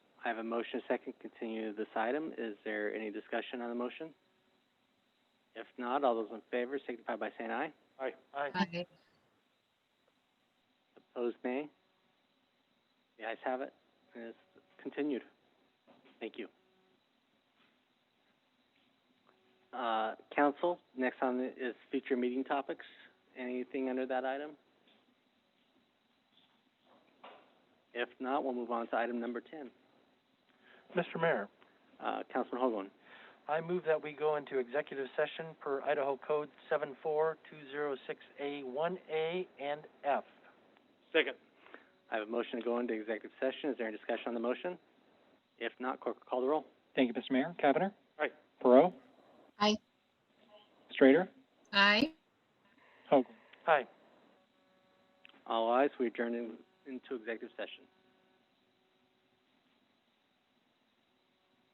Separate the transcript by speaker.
Speaker 1: I have a motion, a second, continue this item. Is there any discussion on the motion? If not, all those in favor signify by saying aye.
Speaker 2: Aye. Aye.
Speaker 3: Aye.
Speaker 1: Opposed, nay? The ayes have it, and it's continued. Thank you. Uh, council, next on the- is future meeting topics. Anything under that item? If not, we'll move on to item number ten.
Speaker 2: Mr. Mayor,
Speaker 1: Uh, Councilman Hoagland.
Speaker 2: I move that we go into executive session per Idaho Code seven four two zero six A one A and F. Second.
Speaker 1: I have a motion to go into executive session. Is there any discussion on the motion? If not, clerk will call the roll.
Speaker 4: Thank you, Mr. Mayor. Cavanagh.
Speaker 2: Aye.
Speaker 4: Perot.
Speaker 3: Aye.
Speaker 4: Strader.
Speaker 3: Aye.
Speaker 4: Hoagland.
Speaker 2: Aye.
Speaker 1: All ayes, we adjourn in, into executive session.